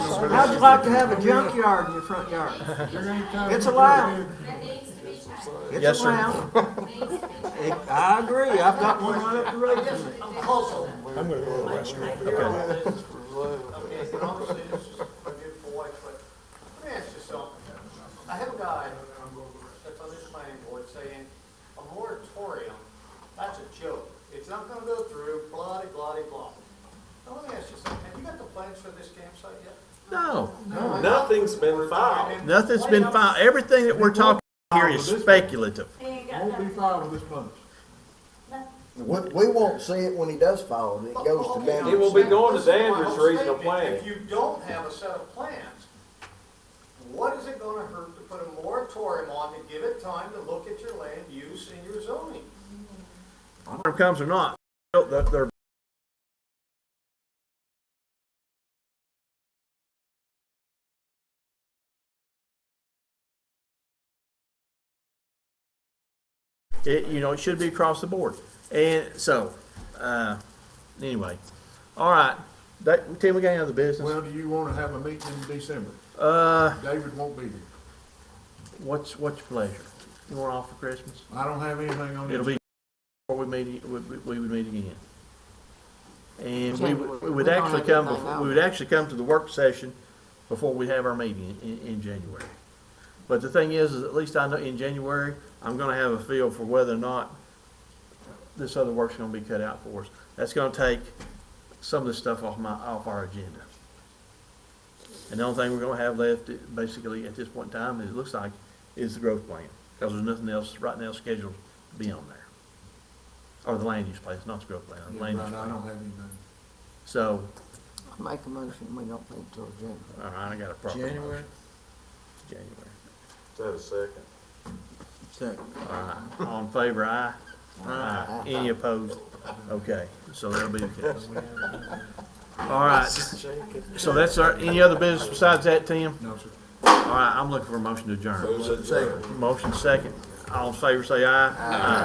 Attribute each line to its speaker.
Speaker 1: for this.
Speaker 2: How'd you like to have a junkyard in your front yard? It's allowed.
Speaker 3: That needs to be changed.
Speaker 1: Yes,
Speaker 2: It's
Speaker 1: sir.
Speaker 2: allowed. It- I agree, I've got one right up the road from me.
Speaker 1: I'm gonna go to the restroom. Okay.
Speaker 4: Okay, but obviously, this is a good boy, but let me ask you something. I have a guy that's on this planning board saying, a moratorium, that's a joke. It's not gonna go through, blah, de blah, de blah. Now, let me ask you something, have you got the plans for this campsite yet?
Speaker 5: No,
Speaker 6: Nothing's been filed.
Speaker 5: nothing's been filed. Everything that we're talking here is speculative.
Speaker 3: He ain't got
Speaker 7: Won't be
Speaker 3: nothing.
Speaker 7: filed with this bunch.
Speaker 8: We, we won't see it when he does file it, it goes to
Speaker 6: It
Speaker 8: Danvers.
Speaker 6: will be going to
Speaker 4: Listen my
Speaker 6: Danvers
Speaker 4: whole
Speaker 6: Regional
Speaker 4: statement.
Speaker 6: Planning.
Speaker 4: If you don't have a set of plans, what is it gonna hurt to put a moratorium on to give it time to look at your land use and your zoning?
Speaker 5: Whether it comes or not, they're- they're It, you know, it should be across the board. And so, uh, anyway, all right. That, Tim, we got any other business?
Speaker 7: Well, do you wanna have a meeting in December?
Speaker 5: Uh,
Speaker 7: David won't be here.
Speaker 5: what's, what's your pleasure? You want off for Christmas?
Speaker 7: I don't have anything on
Speaker 5: It'll
Speaker 7: it.
Speaker 5: be before we meet, we, we we would meet again. And we would, we would actually come, before- we would actually come to the work session before we have our meeting in, in January. But the thing is, is at least I know in January, I'm gonna have a feel for whether or not this other work's gonna be cut out for us. That's gonna take some of the stuff off my, off our agenda. And the only thing we're gonna have left, basically, at this point in time, it looks like, is the growth plan. Because there's nothing else right now scheduled to be on there. Or the land use plan, it's not the growth plan,
Speaker 7: Yeah,
Speaker 5: the
Speaker 7: Right,
Speaker 5: land
Speaker 7: I
Speaker 5: use plan.
Speaker 7: don't have anything.
Speaker 5: So,
Speaker 2: Make a motion, we don't think till January.
Speaker 5: all right, I got a proper motion.
Speaker 8: January?
Speaker 5: January.
Speaker 6: Is that a second?
Speaker 8: Second.
Speaker 5: All right, all in favor, aye? Aye. Any opposed? Okay, so that'll be the case. All right, so that's our, any other business besides that, Tim?
Speaker 7: No, sir.
Speaker 5: All right, I'm looking for a motion to adjourn.
Speaker 6: Who's it?
Speaker 5: Motion second. All in favor, say aye. Aye.